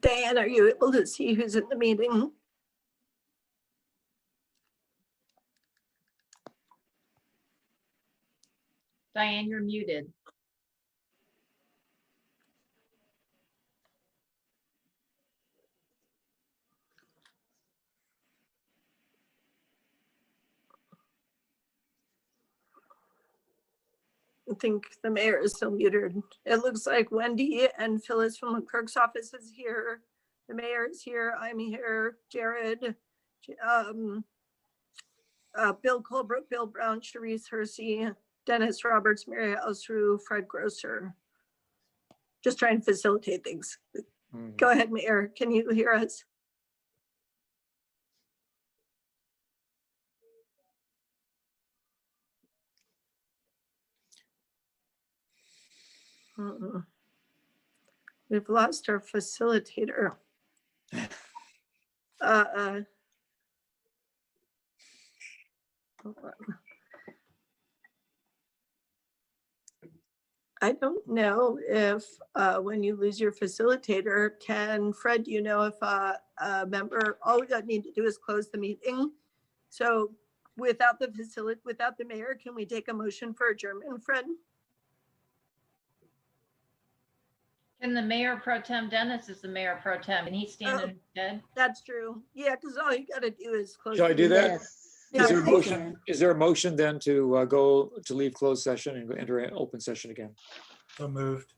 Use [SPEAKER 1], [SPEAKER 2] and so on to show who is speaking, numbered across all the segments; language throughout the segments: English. [SPEAKER 1] Diane, are you able to see who's in the meeting?
[SPEAKER 2] Diane, you're muted.
[SPEAKER 1] I think the mayor is still muted. It looks like Wendy and Phyllis from the clerk's office is here. The mayor is here. I'm here. Jared, J- um, uh, Bill Colbrook, Bill Brown, Sharice Hersey, Dennis Roberts, Mary Osru, Fred Grosser. Just trying to facilitate things.
[SPEAKER 3] Mhm.
[SPEAKER 1] Go ahead, Mayor. Can you hear us? Mm-mm. Uh-uh. We've lost our facilitator. Uh, uh. Hold on. I don't know if, uh, when you lose your facilitator, can Fred, you know if uh, a member, all we don't need to do is close the meeting. So without the facility, without the mayor, can we take a motion for adjournment, Fred?
[SPEAKER 2] Can the mayor pro tem, Dennis is the mayor pro tem, and he's
[SPEAKER 1] Oh.
[SPEAKER 2] standing dead.
[SPEAKER 1] That's true. Yeah, because all you gotta do is close.
[SPEAKER 3] Shall I
[SPEAKER 1] the
[SPEAKER 3] do that?
[SPEAKER 1] meeting.
[SPEAKER 4] Yes.
[SPEAKER 1] Yeah,
[SPEAKER 3] Is there a
[SPEAKER 1] I think-
[SPEAKER 3] motion, is there a motion then to uh, go, to leave closed session and go enter an open session again?
[SPEAKER 5] So moved.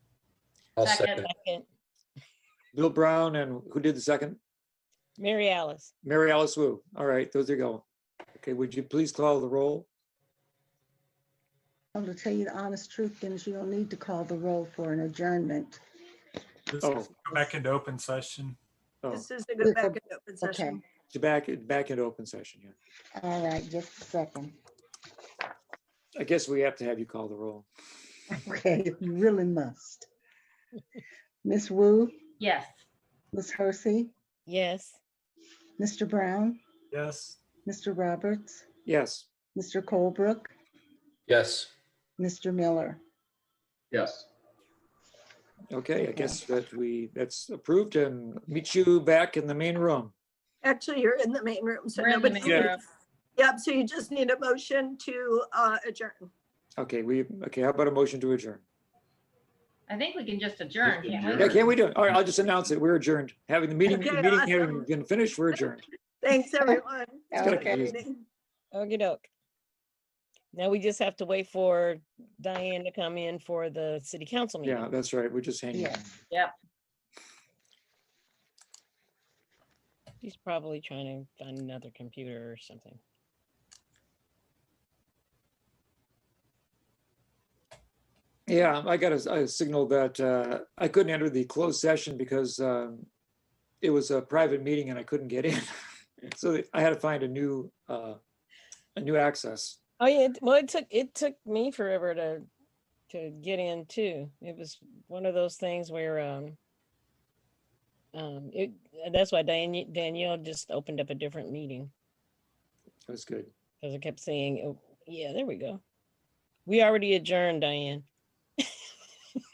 [SPEAKER 6] I'll
[SPEAKER 2] Second,
[SPEAKER 6] second.
[SPEAKER 7] Second,
[SPEAKER 3] Bill Brown and who did the second?
[SPEAKER 7] Mary Alice.
[SPEAKER 3] Mary Alice Wu. All right, those are going. Okay, would you please call the roll?
[SPEAKER 4] I'm to tell you the honest truth, Dennis, you don't need to call the roll for an adjournment.
[SPEAKER 5] This
[SPEAKER 3] Oh.
[SPEAKER 5] is go back into open session.
[SPEAKER 3] Oh,
[SPEAKER 1] This is a good back and open session.
[SPEAKER 3] to back, back into open session, yeah.
[SPEAKER 4] All right, just a second.
[SPEAKER 3] I guess we have to have you call the roll.
[SPEAKER 4] Okay, you really must. Miss Wu,
[SPEAKER 2] yes.
[SPEAKER 4] Miss Hersey,
[SPEAKER 7] Yes.
[SPEAKER 4] Mr. Brown,
[SPEAKER 5] Yes.
[SPEAKER 4] Mr. Roberts,
[SPEAKER 3] Yes,
[SPEAKER 4] Mr. Colebrook,
[SPEAKER 6] Yes.
[SPEAKER 4] Mr. Miller.
[SPEAKER 6] Yes.
[SPEAKER 3] okay, I guess that we, that's approved and meet you back in the main room.
[SPEAKER 1] Actually, you're in the main room, so
[SPEAKER 2] We're in the
[SPEAKER 1] nobody.
[SPEAKER 2] main
[SPEAKER 3] Yeah.
[SPEAKER 2] room.
[SPEAKER 1] Yep, so you just need a motion to uh, adjourn.
[SPEAKER 3] Okay, we, okay, how about a motion to adjourn?
[SPEAKER 2] I think we can just adjourn, can't we?
[SPEAKER 3] Yeah, can we do it? All right, I'll just announce it. We're adjourned. Having the meeting, the
[SPEAKER 1] Okay,
[SPEAKER 3] meeting
[SPEAKER 1] awesome.
[SPEAKER 3] having been finished, we're adjourned.
[SPEAKER 1] Thanks, everyone.
[SPEAKER 4] It's kinda
[SPEAKER 3] Okay.
[SPEAKER 1] Meeting.
[SPEAKER 7] okey doke. Now we just have to wait for Diane to come in for the city council meeting.
[SPEAKER 3] Yeah, that's right. We're just hanging.
[SPEAKER 4] Yes.
[SPEAKER 7] She's probably trying to find another computer or something.
[SPEAKER 3] Yeah, I got a, a signal that uh, I couldn't enter the closed session because um, it was a private meeting and I couldn't get in. So I had to find a new, uh, a new access.
[SPEAKER 7] Oh, yeah. it- Well, it took, it took me forever to, to get in too. It was one of those things where, um, um, it, that's why Diane, Danielle just opened up a different meeting.
[SPEAKER 3] It was good.
[SPEAKER 7] Because I kept saying, oh, yeah, there we go. We already adjourned, Diane.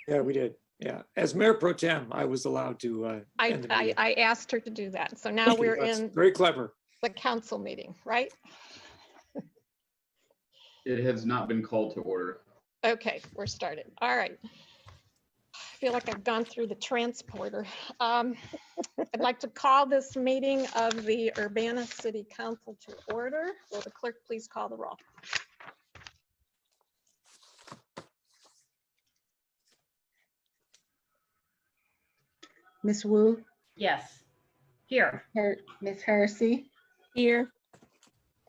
[SPEAKER 3] Yeah, we did. Yeah. As mayor pro tem, I was allowed to. uh,
[SPEAKER 8] I,
[SPEAKER 3] end the
[SPEAKER 8] I,
[SPEAKER 3] meeting.
[SPEAKER 8] I asked her to do that. So now we're
[SPEAKER 3] That's
[SPEAKER 8] in
[SPEAKER 3] Very clever.
[SPEAKER 8] the council meeting, right?
[SPEAKER 9] It has not been called to order.
[SPEAKER 8] Okay, we're started. All right. I feel like I've gone through the transporter. Um, I'd like to call this meeting of the Urbana City Council to order. Will the clerk please call the roll?
[SPEAKER 4] Miss Wu,
[SPEAKER 2] Yes. Here,
[SPEAKER 4] Her- Miss Hersey,
[SPEAKER 7] Here.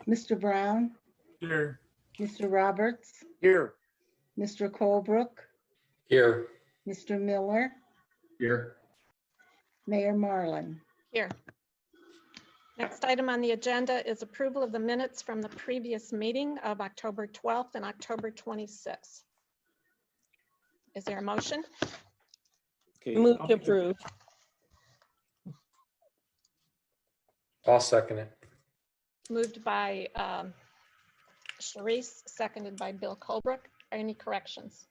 [SPEAKER 4] Mr. Brown,
[SPEAKER 5] Here.
[SPEAKER 4] Mr. Roberts,
[SPEAKER 3] Here.
[SPEAKER 4] Mr. Colebrook,
[SPEAKER 6] Here.
[SPEAKER 4] Mr. Miller,
[SPEAKER 9] Here,
[SPEAKER 4] Mayor Marlin.
[SPEAKER 8] Here. Next item on the agenda is approval of the minutes from the previous meeting of October 12th and October 26th. Is there a motion?
[SPEAKER 3] Okay.
[SPEAKER 7] Move
[SPEAKER 3] I'll
[SPEAKER 7] to
[SPEAKER 3] make the-
[SPEAKER 7] approve.
[SPEAKER 6] I'll second it.
[SPEAKER 8] Moved by um, Sharice, seconded by Bill Colbrook. Any corrections?